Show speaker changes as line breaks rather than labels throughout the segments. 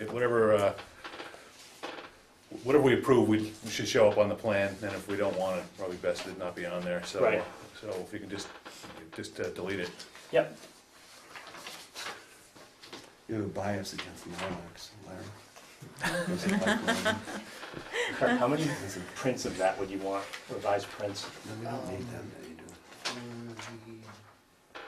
it- whatever, uh, whatever we approve, we we should show up on the plan, and if we don't want it, probably best it not be on there, so.
Right.
So if you can just, just uh, delete it.
Yep,
You have a bias against the Lilacs, Larry. Does it like Lilac?
Kurt, how many prints of that would you want, revised prints?
No, we don't need that many, do we?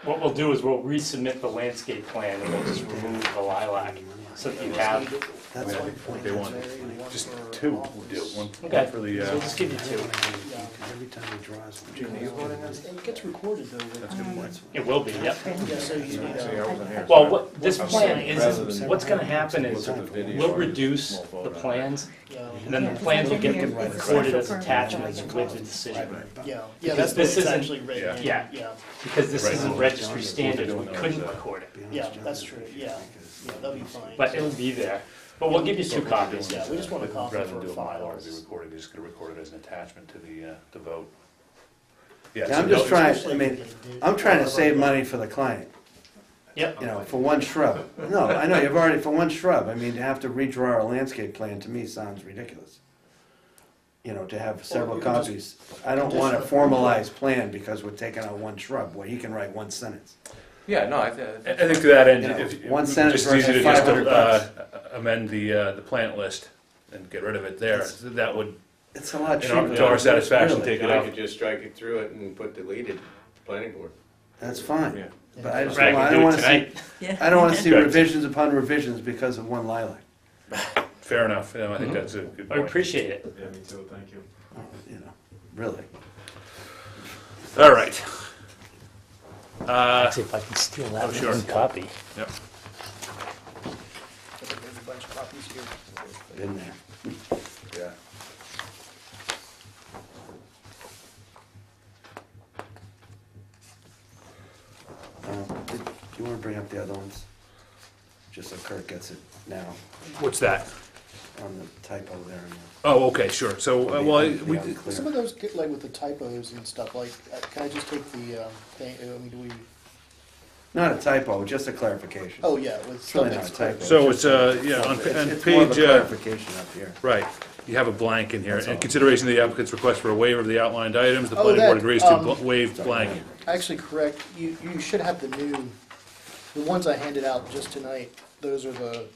What we'll do is we'll resubmit the landscape plan and we'll just remove the lilac, so that you have, so
That's my point.
They
that's
want
my point.
just two, would do, one
Okay.
one for the,
we'll
uh,
just give you two.
Because every time he draws one.
Junior, you
voting on?
It gets recorded though.
that's a good point.
It will be, yep.
Yeah, so you need
See, I
to.
wasn't here, so
Well,
I-
what, this plan is,
Rather
is,
than-
what's gonna happen is,
Look at the video
we'll
or just
reduce
small vote
the
on it.
plans,
Yeah,
and then the
Yeah,
plans will get
it's
in here.
recorded as
Right.
attachments with the
Right,
decision.
right.
yeah, yeah,
Because
that's the way
this
it's
isn't-
actually written. in,
Yeah.
Yeah,
Because this
Right.
isn't registry standards, we
Don't know
couldn't
that.
record it,
Be honest,
Yeah,
John,
that's
if
true,
you
yeah.
think it's-
yeah, that'll be fine.
but it'll be there. But we'll give you two copies.
Yeah, we just want a copy
Rather than
for
do a Mylar to be
files.
recorded, you're just gonna record it as an attachment to the, uh, the vote. Yeah,
Yeah, I'm
so
just
no-
trying-
Especially
I mean,
if you did-
I'm trying to save money for the client,
Yep,
you know, for one shrub. No, I know, you've already, for one shrub, I mean, to have to redraw a landscape plan, to me, sounds ridiculous. You know, to have several
you can just-
copies. I don't want a formalized plan because we're taking out one shrub, where he can write one sentence.
Yeah, no, I think.
I I think to that end,
You know,
if.
one
if-
sentence
just easy to
versus
just,
500
uh, Amend the, uh, the plant list and get rid of it there,
That's-
So that would,
It's a lot
in our-
cheaper.
to our satisfaction,
Really.
take it
I
out.
could just strike it through it and put deleted, planning board.
That's fine,
Yeah.
but I just,
Right,
don't
I
want- I
can
don't
do it
wanna see,
tonight.
I don't wanna see
Right.
revisions upon revisions because of one lilac,
Fair enough, Yeah, I think that's a good
I
point.
appreciate it.
Yeah, me too, thank you.
you know, really.
All right. Uh,
See if I can steal
Oh,
that
sure.
one copy.
There's a bunch of copies here.
Been there.
Yeah.
Uh, did- Do you wanna bring up the other ones? Just so Kirk gets it now,
what's that?
on the typo there. and
Oh, okay, sure, so, uh, well, I-
the-
we,
the unclear.
Some of those get like with the typos and stuff, like, uh, can I just take the, um, thing, I mean, do we,
Not a typo, just a clarification.
oh, yeah, with
It's really
stuff
not a
that's.
typo.
so it's, uh, yeah, on
It's
pa- on
it's more of a
page, uh,
clarification up here.
right, you have a blank in here.
That's
In
all.
consideration of the applicant's request for a waiver of the outlined items, the
Oh,
planning board
that,
agrees to
um,
bl- waive blank.
Actually, correct, you, you should have the new, the ones I handed out just tonight, those are the,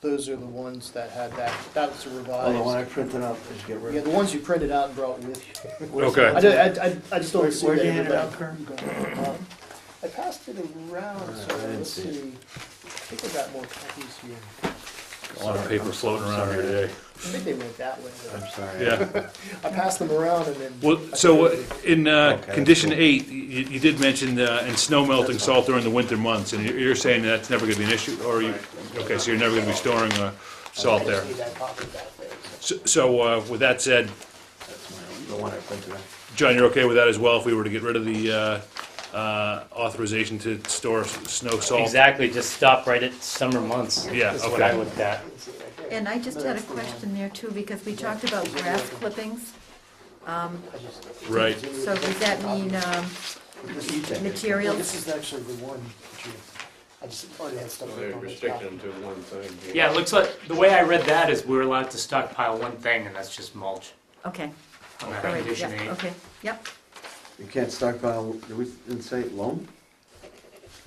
those are the ones that had that, that's the
Oh, the one
revised.
I printed out, did you get rid
Yeah,
of?
the ones you printed out and brought with you.
Okay.
I, do- I, I- I just
Where-
don't see
where'd
that
you hand it out,
everybody- Um, I passed it around, so
Uh, I didn't
let's
see it.
see, I think I got more copies here,
A lot of paper floating around here today.
I think they went that way though.
I'm sorry.
Yeah,
I passed them around and then.
well, so uh, in uh,
Okay.
condition eight, you, you did mention, uh, and snow melting salt during the winter months, and you're, you're saying that's never gonna be an issue, or you, okay, so you're never gonna be storing, uh,
I
salt
just
there.
need that copy back there, so.
So- So, uh, with that said,
That's my own, the one I printed out.
John, you're okay with that as well, if we were to get rid of the, uh, uh, authorization to store s- snow salt?
Exactly, just stop right at summer months.
Yeah,
Is what I
okay.
looked at.
And I just had a question there too, because we talked about grass clippings. Um,
I just-
Right,
So does that mean um,
Just you take it.
Well,
materials?
This is actually the one that you, I just already had stuff.
So
written
They
on this
restrict
copy.
them to one thing.
Yeah, it looks like, the way I read that is we're allowed to stockpile one thing, and that's just mulch
Okay,
on that
all right,
condition
yeah,
eight.
okay, yep.
You can't stockpile, did we didn't say loam?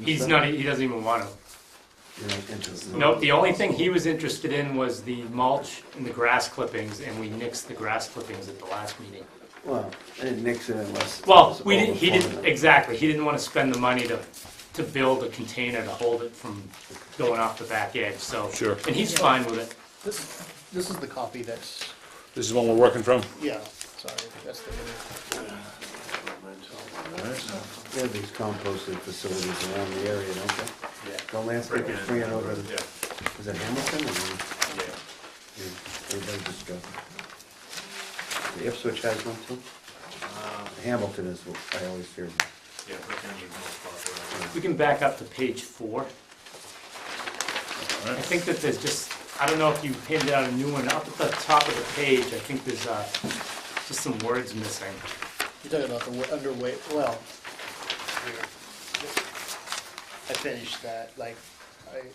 He's not, he doesn't even want to.
You know, interesting.
Nope, the only thing he was interested in was the mulch and the grass clippings, and we nixed the grass clippings at the last meeting.
Well, I didn't nix it unless.
Well,
it's
we didn't, he didn't,
overflowing.
exactly, he didn't want to spend the money to, to build a container to hold it from going off the back edge, so.
Sure.
And he's fine with it.
This, this is the copy that's,
this is one we're working from?
yeah, sorry, that's the one.
They have these composting facilities around the area, don't they?
Yeah.
Don't landscapers bring it over, to- is it Hamilton or? Yeah, Everybody just go. The Ipswich has one too? Hamilton is, what I always hear.
Yeah, but then you know,
We can back up to page four. I think that there's just, I don't know if you handed out a new one, up at the top of the page, I think there's, uh, just some words missing.
You're talking about the wa- underweight, well. here. I finished that, like, I,